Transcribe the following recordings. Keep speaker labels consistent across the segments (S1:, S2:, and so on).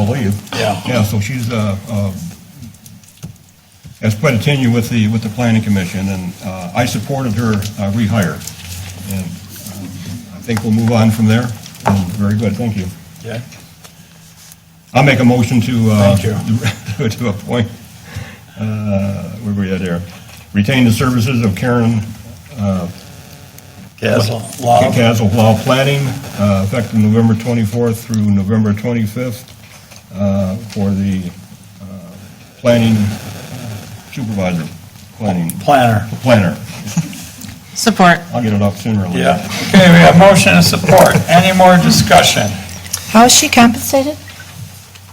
S1: believe.
S2: Yeah.
S1: Yeah, so she's, uh, uh, has quite a tenure with the, with the planning commission, and uh, I supported her uh, rehire. And um, I think we'll move on from there. And Very good, thank you.
S2: Okay.
S1: I'll make a motion to, uh,
S2: Thank
S1: to appoint, uh, where were we at there? Retain the services of Karen
S2: Castle, Love.
S1: Castle Law Planning, uh, effective November 24th through November 25th, uh, for the uh, planning uh, supervisor, planning
S2: Planner.
S1: planner.
S3: Support.
S1: I'll get it up sooner or later.
S2: Yeah. Okay, we have motion and support. Any more discussion?
S4: How is she compensated?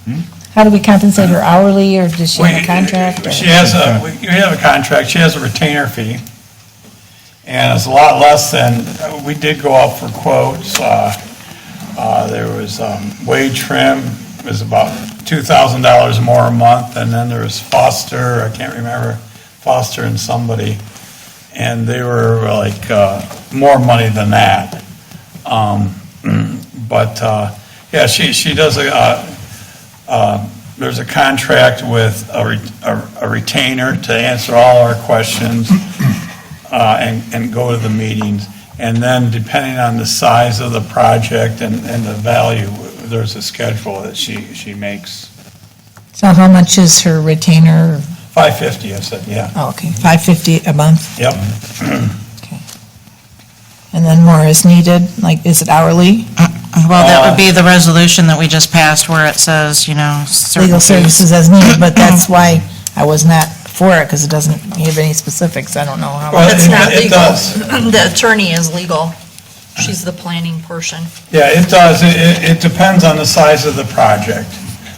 S2: Hmm?
S4: How do we compensate her hourly, or does she have
S2: We-
S4: a contract? or-
S2: She has a, we- you have a contract, she has a retainer fee, and it's a lot less than, we did go out for quotes, uh, uh, there was um, wage trim, was about $2,000 more a month, and then there was Foster, I can't remember, Foster and somebody, and they were like, uh, more money than that. Um, But, uh, yeah, she, she does a, uh, there's a contract with a re- a a retainer to answer all our questions uh, and and go to the meetings. And then depending on the size of the project and and the value, there's a schedule that she she makes.
S4: So how much is her retainer?
S2: 550, I said, yeah,
S4: Oh, okay, 550 a month,
S2: yep.
S4: okay. And then more is needed, like, is it hourly?
S3: Well, that would be the resolution that we just passed where it says, you know, certain
S4: Legal
S3: fees.
S4: services as needed, but that's why I was not for it, because it doesn't give any specifics, I don't know how.
S2: Well,
S4: much.
S5: That's
S2: it-
S5: not
S2: It
S5: legal.
S2: does,
S5: The attorney is legal. She's the planning portion.
S2: yeah, it does, It- it it depends on the size of the project.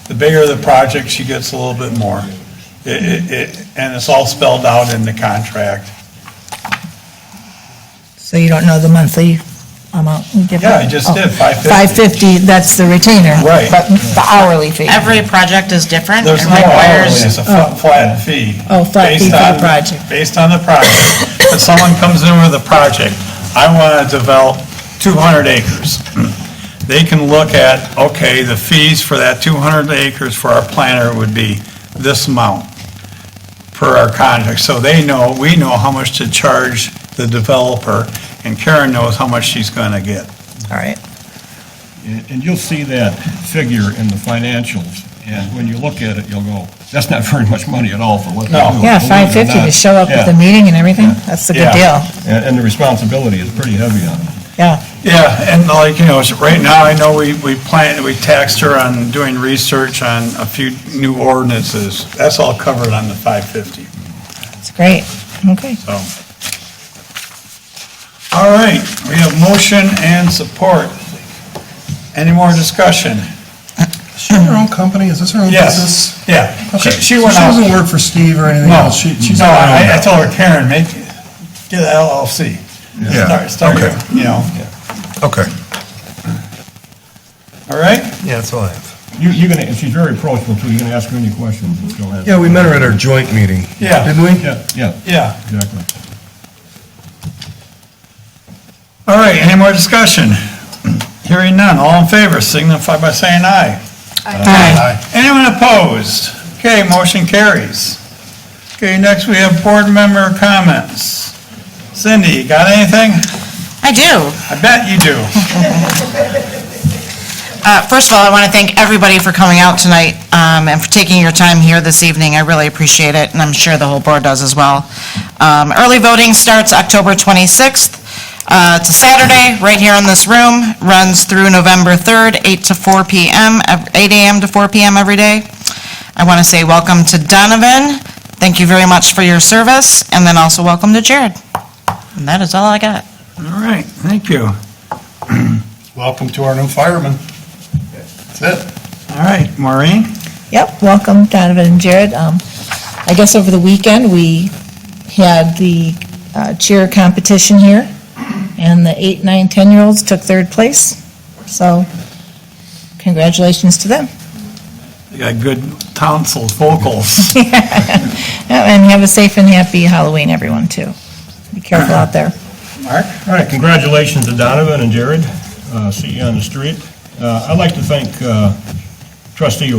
S2: The bigger the project, she gets a little bit more. It- it- it- And it's all spelled out in the contract.
S4: So you don't know the monthly amount? you give
S2: Yeah, I
S4: her?
S2: just
S4: Oh.
S2: did, 550.
S4: 550, that's the retainer.
S2: Right.
S4: But the hourly fee.
S3: Every project is different.
S2: There's
S3: It
S2: no hourly,
S3: requires,
S2: it's a flat, flat fee.
S4: Oh, flat fee
S2: based
S4: for the
S2: on-
S4: project.
S2: Based on the project. If someone comes in with a project, I want to develop 200 acres. They can look at, okay, the fees for that 200 acres for our planner would be this amount per our contract. So they know, we know how much to charge the developer, and Karen knows how much she's going to get.
S4: All right.
S1: And and you'll see that figure in the financials, and when you look at it, you'll go, that's not very much money at all for what they do.
S2: No.
S4: Yeah,
S1: believe it or
S4: 550 to
S1: not.
S4: show up at the
S1: Yeah.
S4: meeting and everything, that's a good deal,
S2: Yeah.
S1: And and the responsibility is pretty heavy on them.
S4: yeah.
S2: Yeah, and like, you know, so right now, I know we, we planned, we taxed her on doing research on a few new ordinances. That's all covered on the 550,
S4: It's great, okay.
S2: so. All right, we have motion and support. Any more discussion?
S6: Is she in her own company? Is this her own
S2: Yes,
S6: business?
S2: yeah. She,
S6: Okay.
S2: she
S6: So
S2: went out.
S6: She doesn't work for Steve or anything
S2: No,
S6: else? She- She's
S2: no,
S6: on her
S2: I,
S6: own.
S2: I told her, Karen, make, get an LLC.
S6: Yeah,
S2: Start, start,
S6: okay.
S2: you know,
S6: Okay.
S2: all right?
S6: Yeah, that's all I have.
S1: You- You're going to, she's very approachable, too, you're going to ask her any questions, and she'll answer.
S6: Yeah, we met her at our joint meeting.
S2: Yeah.
S6: Didn't we?
S1: Yeah, yeah,
S2: Yeah.
S1: exactly.
S2: All right, any more discussion? Hearing none, all in favor signify by saying aye. Aye. Anyone opposed? Okay, motion carries. Okay, next we have board member comments. Cindy, you got anything?
S3: I do.
S2: I bet you do.
S3: Uh, First of all, I want to thank everybody for coming out tonight um, and for taking your time here this evening. I really appreciate it, and I'm sure the whole board does as well. Um, Early voting starts October 26th. Uh, It's a Saturday, right here in this room, runs through November 3rd, 8 to 4 p.m., ev- 8 a.m. to 4 p.m. every day. I want to say welcome to Donovan. Thank you very much for your service, and then also welcome to Jared. And that is all I got.
S2: All right, thank you.
S6: Welcome to our new fireman. That's it.
S2: All right, Maureen?
S4: Yep, welcome Donovan and Jared. Um, I guess over the weekend, we had the uh, cheer competition here, and the eight, nine, 10-year-olds took third place, so congratulations to them.
S2: You got good tonsil vocals.
S4: Yeah, And have a safe and happy Halloween, everyone, too. Be careful out there.
S2: Mark?
S1: All right, congratulations to Donovan and Jared. Uh, See you on the street. Uh, I'd like to thank uh, trustee